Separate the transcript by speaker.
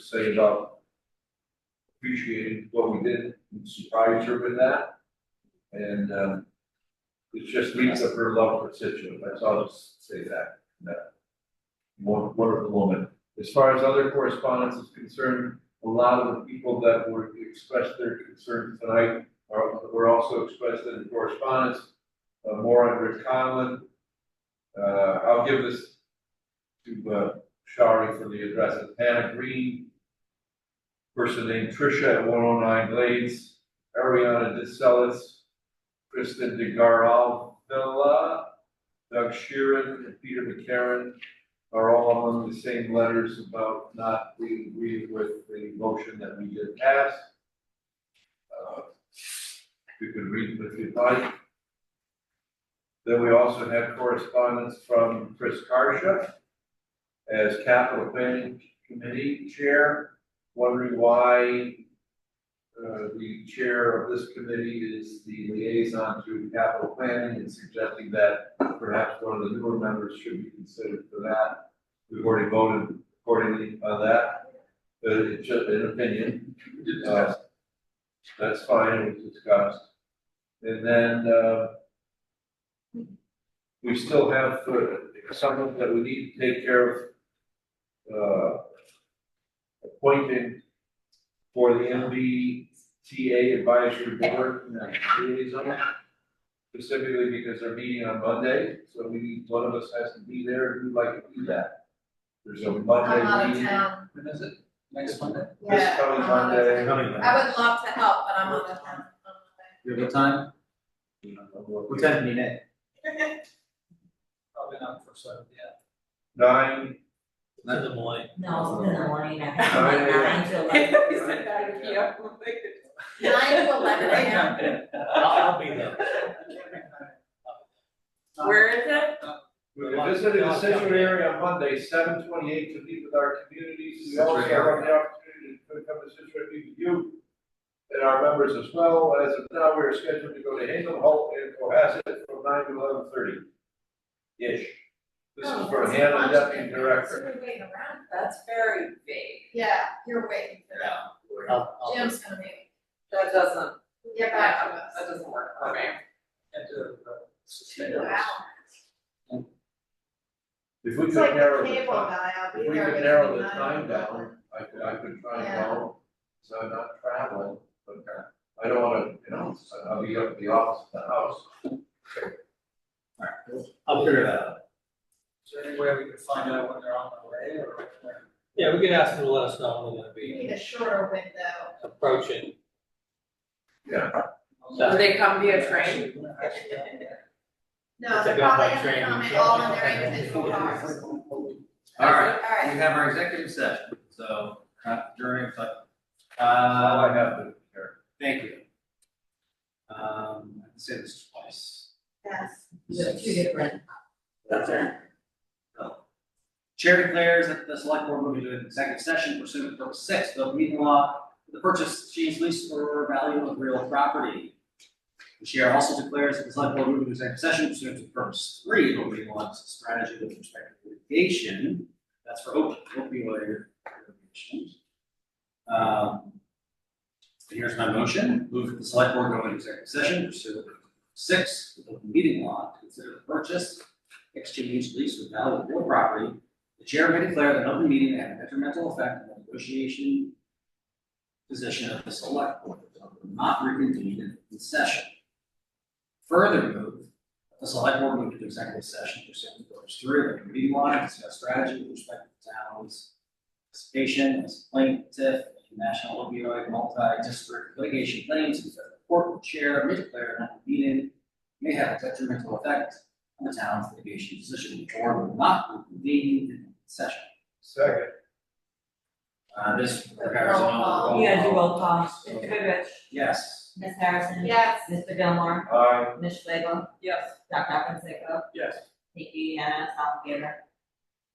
Speaker 1: say about appreciating what we did, and surprised her with that. And, um, it just leaves up her love for Situate, that's all I'll just say that, that. Won- Wonderful woman. As far as other correspondence is concerned, a lot of the people that were, expressed their concerns tonight are, were also expressed in correspondence. Uh, more under Conlon. Uh, I'll give this to, uh, Shari for the addresses. Hannah Green, person named Tricia at one oh nine Glades, Ariana DeSellis, Kristen DeGarval Villa, Doug Sheeran, and Peter McCarron are all on the same letters about not being agreeing with the motion that we did pass. Uh, You can read them if you'd like. Then we also had correspondence from Chris Karsha as capital planning committee chair, wondering why uh, the chair of this committee is the liaison to capital planning and suggesting that perhaps one of the newer members should be considered for that. We've already voted accordingly on that, but it's just an opinion. Uh, That's fine, it was discussed. And then, uh, we still have uh, something that we need to take care of. Uh, appointing for the MBTA advisory board liaison. Specifically because they're meeting on Monday, so we need, one of us has to be there, who'd like to do that? There's a
Speaker 2: I'm out
Speaker 1: Monday
Speaker 2: of
Speaker 1: meeting.
Speaker 2: town.
Speaker 1: When is it?
Speaker 3: Next Monday?
Speaker 1: This
Speaker 2: Yeah,
Speaker 1: coming
Speaker 2: I'm out of
Speaker 1: Monday.
Speaker 2: town. I would love to help, but I'm out of town.
Speaker 3: You have a time? What time do you need it?
Speaker 4: Probably not for seven, yeah.
Speaker 1: Nine,
Speaker 3: Nine in the morning.
Speaker 5: No, it's in the morning, I think,
Speaker 1: Oh, yeah.
Speaker 5: like nine to eleven.
Speaker 6: He said nine P M.
Speaker 2: Nine to eleven AM.
Speaker 3: I'll, I'll be there.
Speaker 6: Where is it?
Speaker 1: we visited the Situate area on Monday, seven twenty-eight to meet with our communities. We
Speaker 3: Situate
Speaker 1: also have
Speaker 3: area.
Speaker 1: the opportunity to come to Situate, meet with you and our members as well. As of now, we're scheduled to go to Hazel Holt and Cohasset from nine to eleven thirty. Ish. This is for
Speaker 2: Oh,
Speaker 1: Hannah, deputy director.
Speaker 6: Wait around, that's very big.
Speaker 2: Yeah, you're waiting for that.
Speaker 3: I'll, I'll-
Speaker 2: Jim's gonna be,
Speaker 6: That doesn't,
Speaker 2: get back to us.
Speaker 6: that doesn't work for me.
Speaker 4: And do it, but-
Speaker 2: Two hours.
Speaker 1: If we could
Speaker 2: It's like
Speaker 1: narrow
Speaker 2: the
Speaker 1: the
Speaker 2: cable
Speaker 1: time,
Speaker 2: guy, I'll
Speaker 1: if
Speaker 2: be
Speaker 1: we
Speaker 2: there
Speaker 1: could
Speaker 2: between
Speaker 1: narrow the
Speaker 2: nine
Speaker 1: time
Speaker 2: and
Speaker 1: down,
Speaker 2: eleven.
Speaker 1: I could, I could try and
Speaker 2: Yeah.
Speaker 1: go. So I'm not traveling, but uh, I don't wanna, you know, I'll be up at the office, the house.
Speaker 3: I'll figure that out.
Speaker 4: Is there any way we could find out when they're on the way or when they're-
Speaker 7: Yeah, we could ask them to let us know when they're gonna
Speaker 2: We
Speaker 7: be
Speaker 2: need a shorter window.
Speaker 7: approaching.
Speaker 6: Do they come via train?
Speaker 2: No,
Speaker 7: If they
Speaker 2: they're
Speaker 7: go by
Speaker 2: probably gonna
Speaker 7: train,
Speaker 2: come in
Speaker 7: sure.
Speaker 2: all in their individual cars.
Speaker 1: Uh,
Speaker 3: All right,
Speaker 2: Alright,
Speaker 3: we have our executive session, so not during, but,
Speaker 1: All
Speaker 3: uh,
Speaker 1: I have to share.
Speaker 3: thank you. Um, I can say this twice.
Speaker 2: yes.
Speaker 5: There's two different.
Speaker 3: That's right. Chair declares that the select board will be doing executive session pursuant to purpose six of the meeting law, for the purchase, change, lease, or value of real property. The chair also declares that the select board will be doing executive session pursuant to purpose three of the meeting law, it's a strategy with respect to litigation. That's for op- opioid litigation. Um, Here's my motion, move that the select board go into executive session pursuant to six of the meeting law, to consider the purchase, exchange, lease, or value of real property, the chair may declare that an open meeting may have a detrimental effect on the negotiation position of the select board, so it will not reconvene in open session. Further move, that the select board move to executive session pursuant to purpose three of the meeting law, to discuss strategy with respect to the town's participation as plaintiff in national opioid multi-district litigation claims, and the court will chair may declare an open meeting may have a detrimental effect on the town's litigation position, or will not reconvene in open session.
Speaker 1: Second.
Speaker 3: Uh, this requires an all.
Speaker 1: Oh.
Speaker 5: You gotta do roll call.
Speaker 3: Mr.
Speaker 5: Goodrich.
Speaker 3: Yes.
Speaker 5: Ms. Harrison.
Speaker 2: Yes.
Speaker 5: Mr. Gilmore.
Speaker 1: Aye.
Speaker 5: Ms. Schlegel.
Speaker 6: Yes.
Speaker 5: Dr. Fonseca.
Speaker 1: Yes.
Speaker 5: Nikki, yes, all together.